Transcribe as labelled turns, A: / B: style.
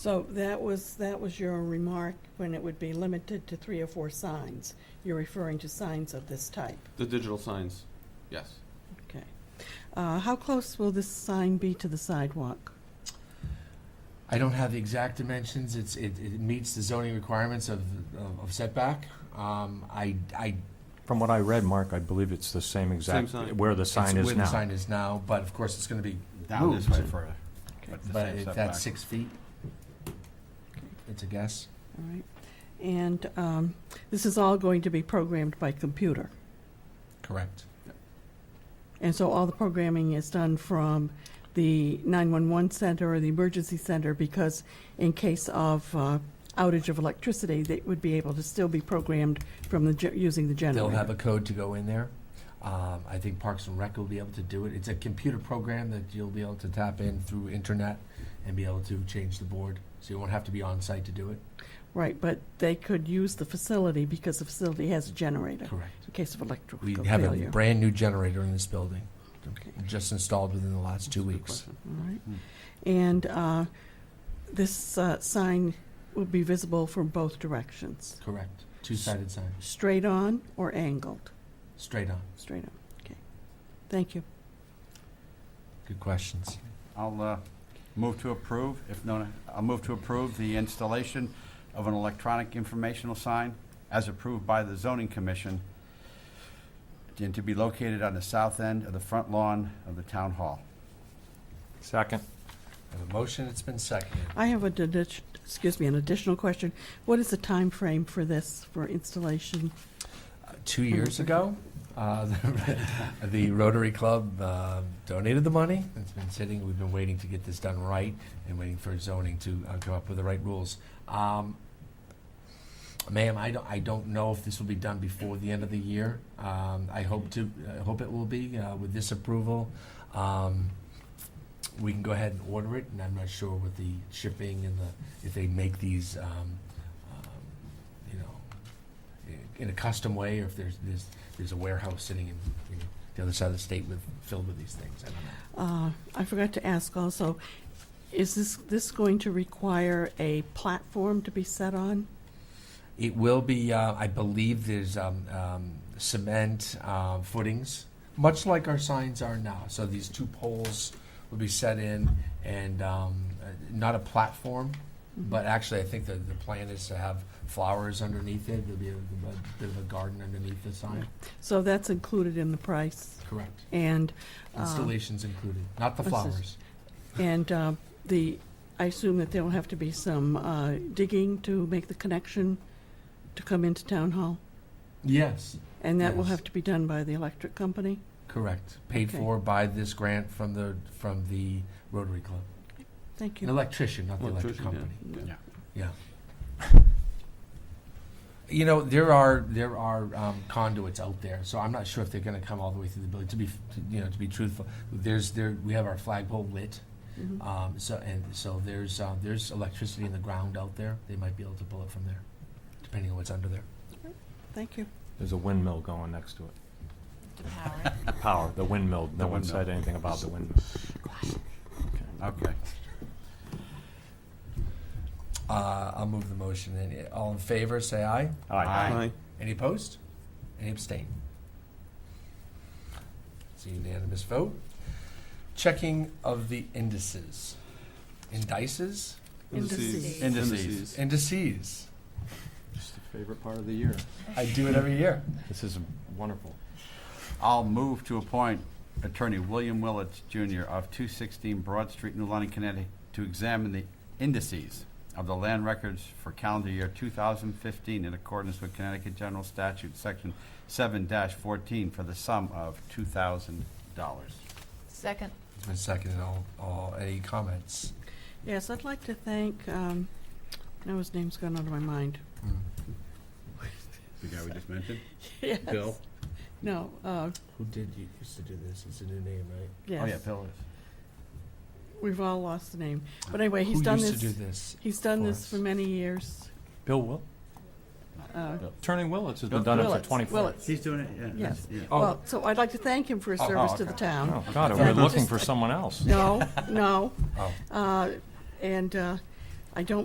A: So that was, that was your remark when it would be limited to three or four signs. You're referring to signs of this type,
B: The digital signs, yes.
A: okay. Uh, How close will this sign be to the sidewalk?
C: I don't have the exact dimensions, it's, it, it meets the zoning requirements of, of- of setback. Um, I, I,
D: From what I read, Mark, I believe it's the same exact,
B: sign.
D: where the
C: it's
D: sign
C: where
D: is
C: the
D: now.
C: sign is now, but of course, it's gonna be
E: down this way
C: moved,
E: further. the
C: But if
E: same setback.
C: that's six feet, it's a guess.
A: All right. And um, this is all going to be programmed by computer.
C: Correct.
A: And so all the programming is done from the 911 center or the emergency center because in case of uh, outage of electricity, they would be able to still be programmed from the, ge- using the generator.
C: They'll have a code to go in there. Um, I think Parks and Rec will be able to do it. It's a computer program that you'll be able to tap in through internet and be able to change the board, so you won't have to be on site to do it.
A: Right, but they could use the facility because the facility has a generator
C: Correct.
A: in case of electrical
C: We
A: failure.
C: have a brand-new generator in this building,
A: Okay.
C: just installed within the last two
B: Good
C: weeks.
B: question.
A: All right.
E: Hmm.
A: And uh, this uh, sign will be visible from both directions,
C: Correct. Two-sided sign,
A: straight on or angled?
C: straight on.
A: Straight on, okay. Thank you.
C: Good questions.
E: I'll uh, move to approve, if no, I'll move to approve the installation of an electronic informational sign as approved by the zoning commission and to be located on the south end of the front lawn of the town hall.
D: Second,
C: I have a motion, it's been seconded.
A: I have a, didi- excuse me, an additional question. What is the time frame for this, for installation?
C: Uh, Two years ago, uh, the Rotary Club uh, donated the money. It's been sitting, we've been waiting to get this done right and waiting for zoning to uh, come up with the right rules. Um, Ma'am, I don't, I don't know if this will be done before the end of the year. Um, I hope to, I hope it will be uh, with this approval. Um, We can go ahead and order it, and I'm not sure with the shipping and the, if they make these, um, um, you know, in a custom way, or if there's, there's, there's a warehouse sitting in, you know, the other side of the state with, filled with these things. I don't know.
A: Uh, I forgot to ask also, is this, this going to require a platform to be set on?
C: It will be, uh, I believe there's, um, um, cement, uh, footings, much like our signs are now. So these two poles will be set in and, um, uh, not a platform, but actually I think that the plan is to have flowers underneath it. There'll be a, a bit of a garden underneath the sign.
A: So that's included in the price,
C: Correct.
A: and, uh,
C: Installations included, not the
A: this is-
C: flowers.
A: and uh, the, I assume that there will have to be some uh, digging to make the connection to come into Town Hall?
C: Yes.
A: And that will
C: Yes.
A: have to be done by the electric company?
C: Correct. Paid
A: Okay.
C: for by this grant from the from the Rotary Club.
A: Thank
C: An
A: you.
C: electrician, not the electric
B: Electrician, yeah.
C: company.
B: Yeah.
E: Yeah.
C: Yeah. You know there are there are um, conduits out there, so I'm not sure if they're going to come all the way through the building. To be f- to- you know to be truthful, there's there we have our flagpole lit,
A: Mhm.
C: um, so and so there's uh, there's electricity in the ground out there. They might be able to pull it from there, depending on what's under there.
A: Thank you.
D: there's a windmill going next to it.
F: to power.
D: The power, the windmill, no
E: The
D: one
E: windmill.
D: said anything about the windmill.
E: Okay.
C: Uh, I'll move the motion. And all in favor, say aye.
D: Aye.
B: Aye.
C: Any opposed? Any abstain? It's a unanimous vote. Checking of the indices. Indices?
A: Indices.
E: Indices.
C: Indices.
D: It's the favorite part of the year.
C: I do it every year.
D: This is wonderful.
E: I'll move to appoint Attorney William Willets Jr. of 216 Broad Street, New London, Connecticut, to examine the indices of the land records for calendar year 2015 in accordance with Connecticut General Statute, Section 7-14, for the sum of $2,000.
F: Second.
C: It's been seconded. All, all, any comments?
A: Yes, I'd like to thank, um, now his name's gone out of my mind.
C: Mm.
E: The guy we just mentioned?
A: Yes.
E: Bill?
A: No, uh,
C: Who did, you used to do this? It's a new name, right?
E: Oh, yeah,
A: yes.
E: Bill is.
A: We've all lost the name. But anyway, he's
C: Who
A: done
C: used to do
A: this,
C: this?
A: he's done
C: for
A: this
C: us?
A: for many years.
D: Bill Will,
A: Uh,
D: Turning Willets has been
E: Bill
D: done it for
A: Willets,
D: 24.
A: Willets.
E: He's doing it, yeah.
A: Yes.
E: yeah.
C: Oh.
A: Well, so I'd like to thank him for his
C: Oh, oh,
A: service to the
C: okay.
A: town.
D: Oh, God,
C: I
D: we're
C: thought-
D: looking for someone else.
A: No, no.
C: Oh.
A: Uh, And uh, I don't